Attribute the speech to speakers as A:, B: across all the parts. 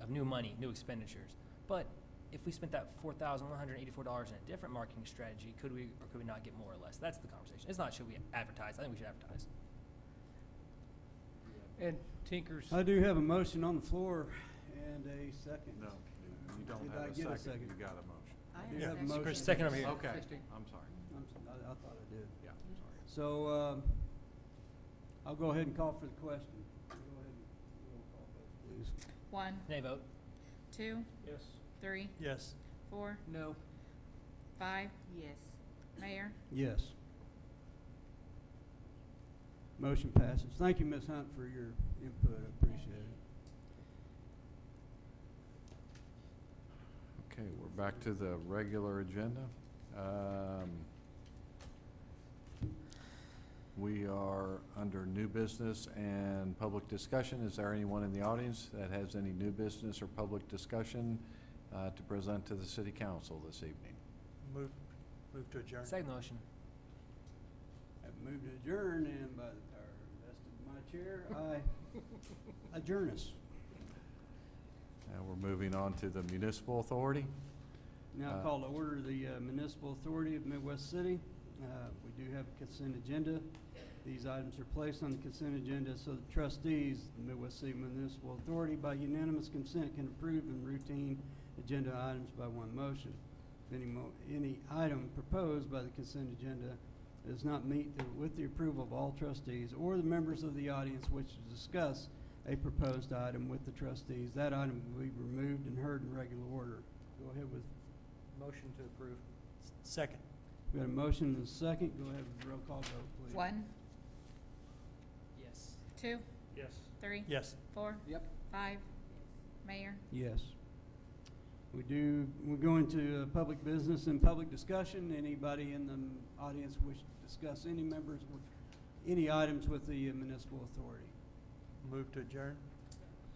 A: of new money, new expenditures. But if we spent that four thousand one hundred eighty-four dollars in a different marketing strategy, could we or could we not get more or less? That's the conversation. It's not should we advertise. I think we should advertise.
B: And Tinker's,
C: I do have a motion on the floor and a second.
D: No, you- you don't
C: Did I
D: have a
C: get a
D: second,
C: second?
D: you got a motion.
E: I
C: do
E: have
C: have
E: a
C: a motion.
A: Chris, second over here.
D: Okay,
B: Sixteen.
D: I'm sorry,
C: I'm s- I, I thought I did.
D: yeah, I'm sorry.
C: So, um, I'll go ahead and call for the question. Go ahead and roll call vote, please.
F: One,
A: Nay vote.
F: two,
B: yes,
F: three,
G: Yes.
F: four,
B: no,
F: five,
E: Yes.
F: Mayor,
C: Yes. Motion passes. Thank you, Ms. Hunt, for your input. I appreciate it.
D: Okay, we're back to the regular agenda. Um, We are under new business and public discussion. Is there anyone in the audience that has any new business or public discussion uh, to present to the city council this evening?
G: Move, move to adjourn.
A: Second motion.
C: I've moved to adjourn, and by the power vested in my chair, I adjourn us.
D: And we're moving on to the municipal authority.
C: Now
D: Uh,
C: call to order the uh, Municipal Authority of Midwest City. Uh, We do have a consent agenda. These items are placed on the consent agenda so the trustees, of the Midwest City Municipal Authority, by unanimous consent can approve and routine agenda items by one motion. If any mo, any item proposed by the consent agenda does not meet the- with the approval of all trustees or the members of the audience which to discuss a proposed item with the trustees, that item will be removed and heard in regular order. Go ahead with
B: motion to approve.
G: S- Second.
C: we got a motion and a second. Go ahead with roll call vote, please.
F: one,
A: Yes.
F: two,
B: Yes.
F: three,
G: Yes.
F: four,
B: Yep.
F: five, Mayor,
C: Yes. We do, we're going to uh, public business and public discussion. Anybody in the audience wish to discuss any members, with any items with the uh, municipal authority?
G: Move to adjourn.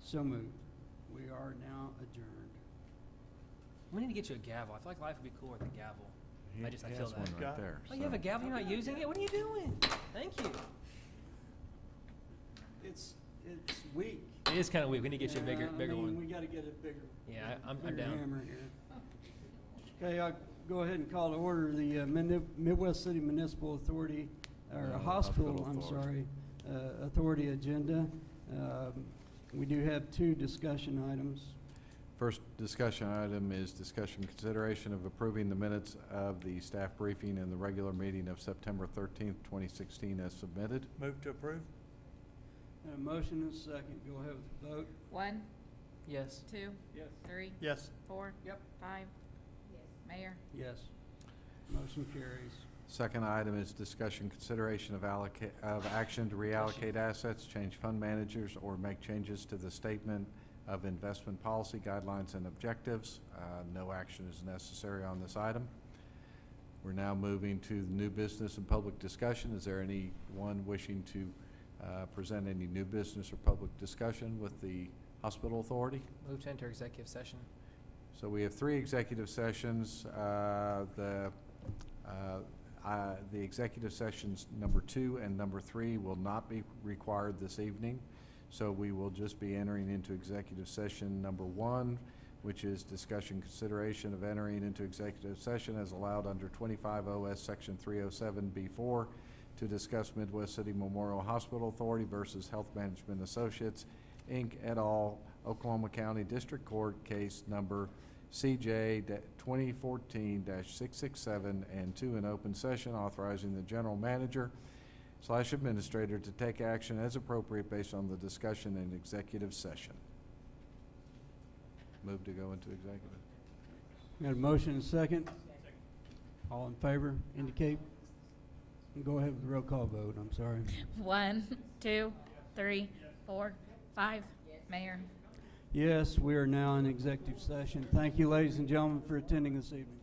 C: So moved. We are now adjourned.
A: We need to get you a gavel. I feel like life would be cooler with a gavel.
D: He-
A: I just- I
D: he
A: feel
D: has one
A: that.
D: right there,
A: Oh, you have a
D: so-
A: gavel? You're not using it? What are you doing? Thank you.
C: It's, it's weak.
A: It is kind of weak. We need to get you a bigger,
C: Yeah, I
A: bigger
C: mean, We
A: one.
C: gotta get a bigger.
A: Yeah, I- I'm- I'm
C: bigger
A: down.
C: hammer here. Okay, I'll go ahead and call to order the uh, Mini- Midwest City Municipal Authority, or
D: Uh,
C: Hospital,
D: Hospital
C: I'm sorry,
D: Authority.
C: uh, Authority Agenda. Um, We do have two discussion items.
D: First discussion item is discussion consideration of approving the minutes of the staff briefing and the regular meeting of September thirteenth, twenty sixteen as submitted.
G: Move to approve.
C: And a motion and a second, go ahead with the vote.
F: one,
A: Yes.
F: two,
B: Yes.
F: three,
G: Yes.
F: four,
B: Yep.
F: five, Mayor,
C: Yes. Motion carries.
D: Second item is discussion consideration of allocate, of action to reallocate assets, change fund managers, or make changes to the statement of investment policy guidelines and objectives. Uh, no action is necessary on this item. We're now moving to the new business and public discussion. Is there anyone wishing to, uh, present any new business or public discussion with the hospital authority?
A: Move to enter executive session.
D: So we have three executive sessions. Uh, The, uh, uh, the executive sessions number two and number three will not be required this evening. So we will just be entering into executive session number one, which is discussion consideration of entering into executive session as allowed under 25 OS Section 307B4 to discuss Midwest City Memorial Hospital Authority versus Health Management Associates, Inc., et al., Oklahoma County District Court, case number CJ da- 2014-667, and two, in open session authorizing the general manager slash administrator to take action as appropriate based on the discussion in executive session. Move to go into executive.
C: Got a motion and a second? All in favor, indicate. Go ahead with the roll call vote, I'm sorry.
F: one, two, three, four, five, Mayor.
C: Yes, we are now in executive session. Thank you, ladies and gentlemen, for attending this evening.